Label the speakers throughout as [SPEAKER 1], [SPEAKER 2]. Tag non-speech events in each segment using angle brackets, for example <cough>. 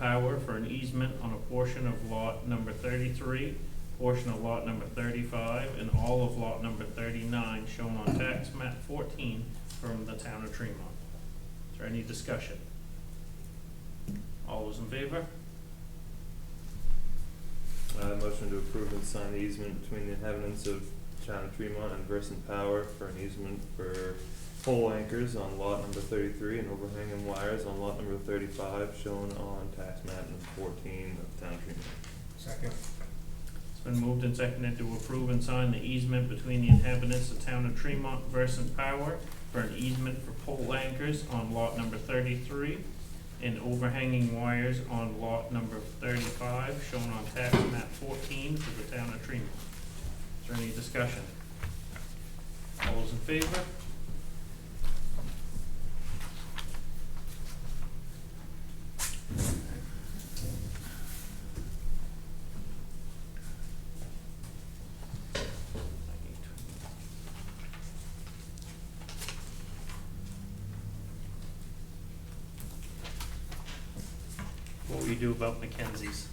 [SPEAKER 1] Power for an easement on a portion of lot number thirty-three, portion of lot number thirty-five, and all of lot number thirty-nine shown on tax map fourteen from the town of Tremont. Is there any discussion? All those in favor?
[SPEAKER 2] Uh, motion to approve and sign the easement between the inhabitants of town of Tremont and Versant Power for an easement for pole anchors on lot number thirty-three and overhanging wires on lot number thirty-five shown on tax map number fourteen of town of Tremont.
[SPEAKER 3] Second.
[SPEAKER 1] It's been moved and seconded to approve and sign the easement between the inhabitants of town of Tremont versus Power for an easement for pole anchors on lot number thirty-three and overhanging wires on lot number thirty-five, shown on tax map fourteen for the town of Tremont. Is there any discussion? All those in favor? What we do about Mackenzie's,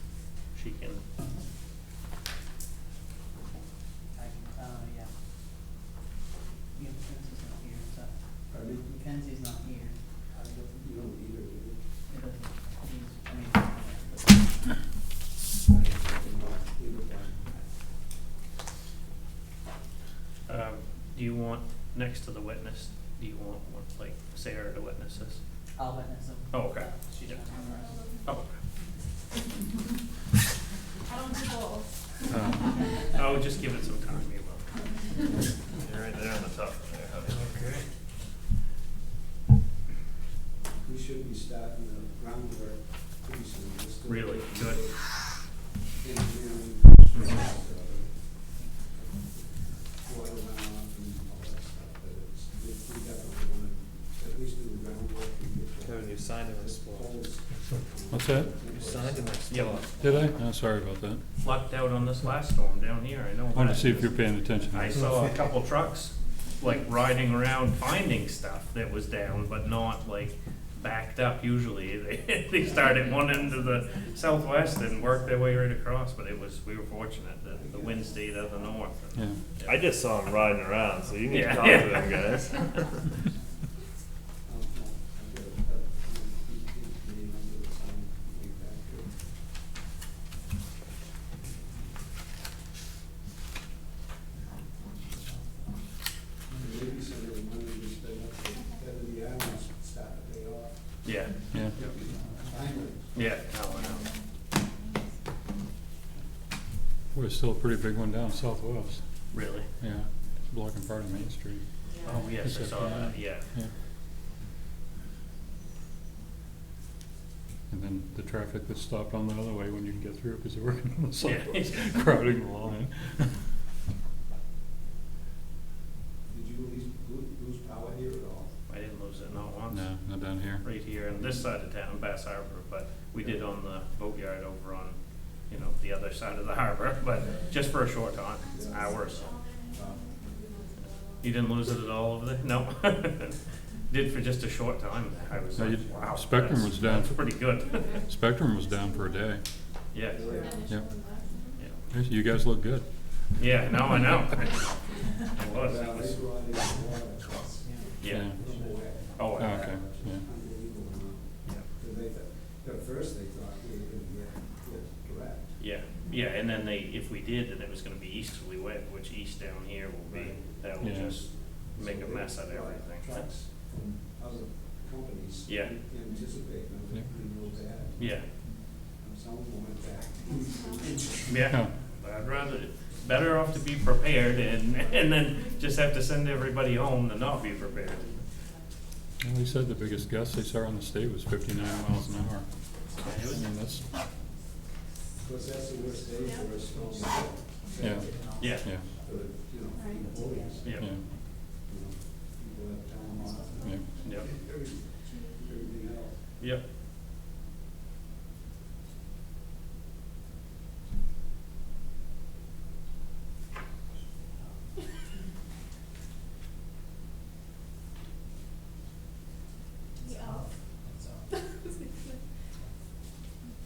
[SPEAKER 1] she can,
[SPEAKER 4] I, uh, yeah. Yeah, Mackenzie's not here, so.
[SPEAKER 5] Pardon?
[SPEAKER 4] Mackenzie's not here.
[SPEAKER 5] I don't, you don't either, do you?
[SPEAKER 4] It doesn't, he's, I mean, but
[SPEAKER 5] Either one.
[SPEAKER 1] uh, do you want, next to the witness, do you want, one, like, Sarah to witness this?
[SPEAKER 4] I'll witness him.
[SPEAKER 1] Oh, okay.
[SPEAKER 4] She's not here.
[SPEAKER 1] Oh,
[SPEAKER 6] I don't do both.
[SPEAKER 1] Oh, just give it some time, you will. You're right there on the top there,
[SPEAKER 3] Okay.
[SPEAKER 5] We should be starting the groundwork pretty soon. Let's do-
[SPEAKER 1] Really? Good.
[SPEAKER 5] Engineering. Water runoff and all that stuff, but it's, we we definitely wanna at least do the groundwork and get the.
[SPEAKER 2] Kevin, you signed in my
[SPEAKER 5] the
[SPEAKER 2] spot.
[SPEAKER 5] poles.
[SPEAKER 7] What's that?
[SPEAKER 2] You signed in my
[SPEAKER 1] Yeah.
[SPEAKER 2] spot.
[SPEAKER 7] Did I? Oh, sorry about that.
[SPEAKER 1] Lucked out on this last storm down here, I know
[SPEAKER 7] I wanted
[SPEAKER 1] that.
[SPEAKER 7] to see if you're paying attention.
[SPEAKER 1] I saw a couple trucks, like, riding around finding stuff that was down, but not like backed up usually. <laughs> They, they started one end of the southwest and worked their way right across, but it was, we were fortunate that the wind stayed out of the north.
[SPEAKER 7] Yeah.
[SPEAKER 2] I just saw him riding around, so you need
[SPEAKER 1] Yeah.
[SPEAKER 2] to talk to them guys.
[SPEAKER 7] <laughs>
[SPEAKER 5] I'll, I'll, I'll get it, uh, you can, you can, I'll do it sometime like that, too. Maybe some of the money we spend up at head of the island should start to pay off.
[SPEAKER 1] Yeah,
[SPEAKER 7] Yeah.
[SPEAKER 5] Finally,
[SPEAKER 1] yeah, Oh, no, no.
[SPEAKER 7] We're still a pretty big one down southwest.
[SPEAKER 1] really.
[SPEAKER 7] Yeah. It's blocking part of Main Street.
[SPEAKER 1] Oh, yes, I
[SPEAKER 7] Except
[SPEAKER 1] saw
[SPEAKER 7] for
[SPEAKER 1] that,
[SPEAKER 7] that.
[SPEAKER 1] yeah.
[SPEAKER 7] Yeah. And then the traffic that's stopped on the other way when you can get through because they're working on the
[SPEAKER 1] Yeah.
[SPEAKER 7] sidewalks, <laughs> crowding the line.
[SPEAKER 5] did you lose, lose lose power here at all?
[SPEAKER 1] I didn't lose it, not once.
[SPEAKER 7] No, not down here.
[SPEAKER 1] right here on this side of town, Bass Harbor, but we did on the boatyard over on, you know, the other side of the harbor, but just for a short time, it's hours. You didn't lose it at all over there? No. <laughs> Did for just a short time. I was
[SPEAKER 7] No,
[SPEAKER 1] like,
[SPEAKER 7] you-
[SPEAKER 1] wow.
[SPEAKER 7] Spectrum
[SPEAKER 1] that's-
[SPEAKER 7] was down.
[SPEAKER 1] That's pretty good. <laughs>
[SPEAKER 7] Spectrum was down for a day.
[SPEAKER 1] Yeah,
[SPEAKER 7] Yep.
[SPEAKER 1] yeah.
[SPEAKER 7] You guys look good.
[SPEAKER 1] Yeah, no, I know. <laughs> It was, it
[SPEAKER 5] Well,
[SPEAKER 1] was,
[SPEAKER 5] they were on the water,
[SPEAKER 1] yeah.
[SPEAKER 5] no way.
[SPEAKER 1] Oh,
[SPEAKER 7] Oh,
[SPEAKER 1] I-
[SPEAKER 7] okay, yeah.
[SPEAKER 5] Unbelievable amount. Because they, thought- at first they thought we were gonna get, get direct.
[SPEAKER 1] yeah, yeah, and then they, if we did, then it was gonna be easterly wind, which east down here will be, that will
[SPEAKER 7] Yeah.
[SPEAKER 1] just make a
[SPEAKER 5] So they
[SPEAKER 1] mess out of
[SPEAKER 5] brought
[SPEAKER 1] everything.
[SPEAKER 5] Trucks from other companies.
[SPEAKER 1] Yeah.
[SPEAKER 5] Anticipating that
[SPEAKER 7] Yeah.
[SPEAKER 5] we will bad,
[SPEAKER 1] Yeah,
[SPEAKER 5] and some of them went back.
[SPEAKER 1] yeah.
[SPEAKER 7] Oh,
[SPEAKER 1] I'd rather, better off to be prepared and, <laughs> and then just have to send everybody home than not be prepared.
[SPEAKER 7] And they said the biggest gust they saw on the state was fifty-nine miles an hour.
[SPEAKER 1] It was-
[SPEAKER 7] I mean, that's,
[SPEAKER 5] Because that's the worst day for a snowstorm.
[SPEAKER 7] Yeah.
[SPEAKER 1] Yeah,
[SPEAKER 7] yeah,
[SPEAKER 5] For, you know, for employees, you
[SPEAKER 1] yeah,
[SPEAKER 7] yeah,
[SPEAKER 5] know, people have time off, and
[SPEAKER 7] yeah.
[SPEAKER 1] yep,
[SPEAKER 5] every- everything else.
[SPEAKER 1] yep.